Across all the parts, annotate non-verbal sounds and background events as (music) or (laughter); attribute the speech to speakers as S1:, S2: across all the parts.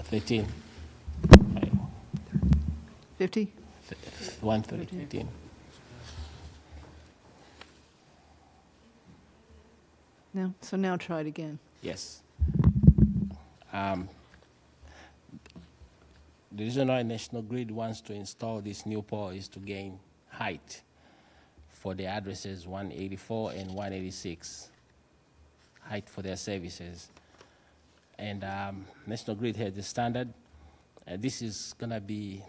S1: 13.
S2: 50?
S1: 1, 13.
S2: No? So now try it again.
S1: Yes. Um, The reason why National Grid wants to install this new pole is to gain height for the addresses 184 and 186, height for their services. And um, National Grid has the standard, and this is gonna be,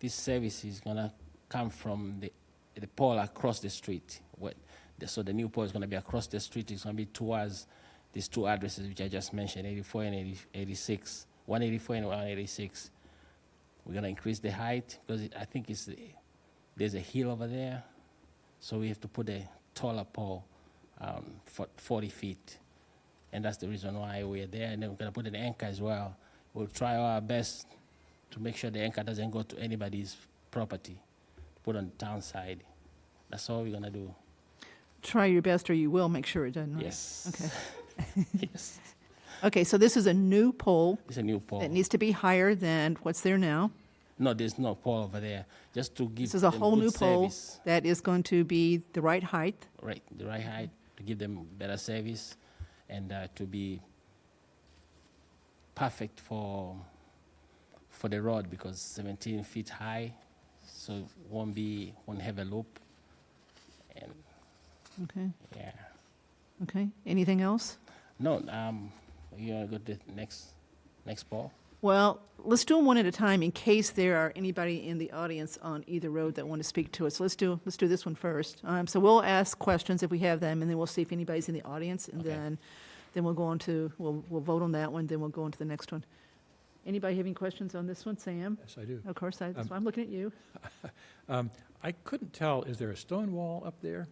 S1: this service is gonna come from the, the pole across the street. What, the- so the new pole is gonna be across the street, it's gonna be towards these two addresses which I just mentioned, 84 and 80 86, 184 and 186. We're gonna increase the height, because it- I think it's, the- there's a hill over there, so we have to put a taller pole, um, for 40 feet. And that's the reason why we're there, and then we're gonna put an anchor as well. We'll try our best to make sure the anchor doesn't go to anybody's property, put on the town side. That's all we're gonna do,
S2: Try your best or you will make sure it doesn't. right?
S1: yes.
S2: Okay.
S1: (laughs) Yes,
S2: Okay, so this is a new pole
S1: it's a new pole.
S2: that needs to be higher than what's there now.
S1: No, there's no pole over there. Just to give
S2: This is a
S1: them
S2: whole
S1: good
S2: new pole
S1: service.
S2: that is going to be the right height.
S1: Right, the right height to give them better service, and uh, to be perfect for for the road because 17 feet high, so it won't be won't have a loop. And
S2: Okay,
S1: yeah,
S2: okay. Anything else?
S1: no, um, you wanna go to the next next pole?
S2: Well, let's do them one at a time in case there are anybody in the audience on either road that want to speak to us. Let's do, let's do this one first. Um, so we'll ask questions if we have them, and then we'll see if anybody's in the audience, and
S1: Okay.
S2: then, then we'll go on to, we'll, we'll vote on that one, then we'll go on to the next one. Anybody have any questions on this one? Sam?
S3: Yes, I do.
S2: Of course, I, that's
S3: Um,
S2: why I'm looking at you.
S3: Um, I couldn't tell, is there a stone wall up there?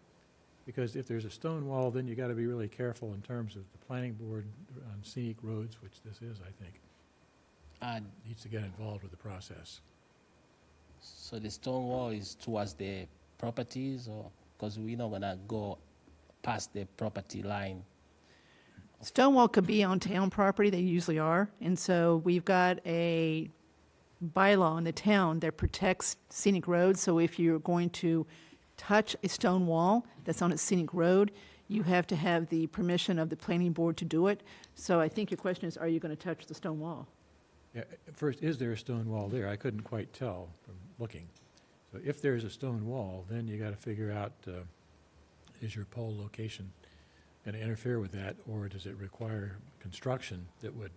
S3: Because if there's a stone wall, then you got to be really careful in terms of the planning board on scenic roads, which this is, I think,
S1: Uh,
S3: needs to get involved with the process.
S1: so the stone wall is towards the properties, or because we're not gonna go past the property line.
S2: Stonewall could be on town property, they usually are, and so we've got a bylaw in the town that protects scenic roads, so if you're going to touch a stone wall that's on a scenic road, you have to have the permission of the planning board to do it. So I think your question is, are you going to touch the stone wall?
S3: Yeah, First, is there a stone wall there? I couldn't quite tell from looking. So if there's a stone wall, then you got to figure out, uh, is your pole location going to interfere with that? Or does it require construction that would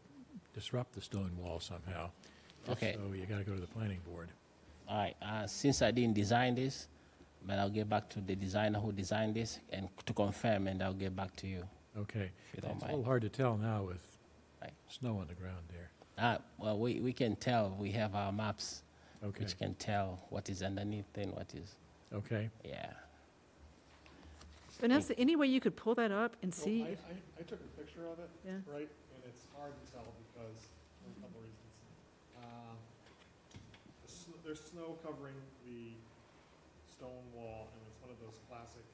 S3: disrupt the stone wall somehow? If
S1: Okay.
S3: So you got to go to the planning board.
S1: All right. Uh, since I didn't design this, but I'll get back to the designer who designed this and to confirm, and I'll get back to you
S3: Okay.
S1: if you don't
S3: It's a little
S1: mind.
S3: hard to tell now with
S1: Right.
S3: snow on the ground there.
S1: Uh, well, we, we can tell. We have our maps,
S3: Okay,
S1: which can tell what is underneath and what is.
S3: okay.
S1: Yeah.
S2: Vanessa, any way you could pull that up and
S4: Well,
S2: see?
S4: Oh, I, I, I took a picture of it,
S2: Yeah.
S4: right, and it's hard to tell because, for a couple reasons. Um, the sn- There's snow covering the stone wall, and it's one of those classic.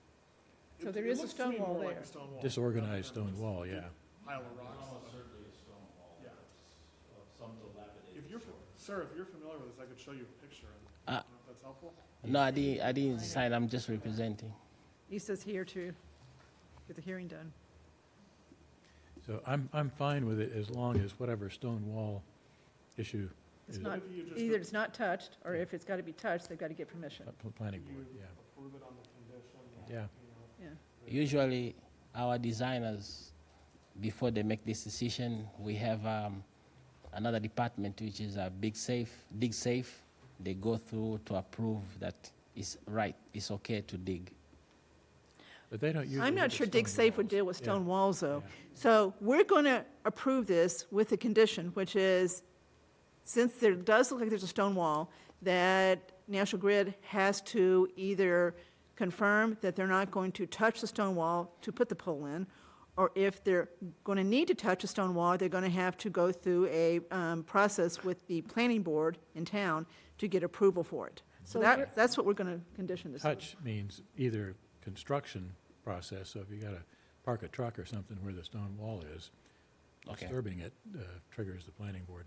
S2: So
S4: it-
S2: there
S4: it
S2: is a
S4: looks to me
S2: stone wall
S4: more like
S2: there.
S4: a stone wall.
S3: Disorganized
S4: rather than
S3: stone wall, yeah.
S4: just a Pile of rocks. Yeah. If you're, fa- sir, if you're familiar with this, I could show you a picture,
S1: Ah.
S3: Uh,
S4: and I don't know if that's helpful.
S1: No, I didn't. I didn't design. I'm just representing.
S2: He says here to get the hearing done.
S3: So I'm, I'm fine with it as long as whatever stone wall issue,
S2: It's
S3: Is it-
S2: not,
S4: If you just
S2: either
S4: a-
S2: it's not touched, or if it's got to be touched, they've got to get permission,
S3: uh, pl- planning board,
S4: You
S3: yeah,
S4: approve it on the condition that,
S3: yeah.
S4: you know,
S2: yeah.
S1: Usually, our designers, before they make this decision, we have um, another department which is a big safe, dig safe. They go through to approve that it's right, it's okay to dig.
S3: But they don't usually.
S2: I'm not
S3: look at
S2: sure dig
S3: stone
S2: safe would
S3: walls.
S2: deal with
S3: Yeah,
S2: stone walls, though.
S3: yeah.
S2: So we're going to approve this with a condition, which is, since there does look like there's a stone wall, that National Grid has to either confirm that they're not going to touch the stone wall to put the pole in, or if they're going to need to touch a stone wall, they're going to have to go through a um, process with the planning board in town to get approval for it. So that, that's what we're going to condition this. on.
S3: Touch means either construction process, so if you gotta park a truck or something where the stone wall is,
S1: Okay.
S3: disturbing it uh, triggers the planning board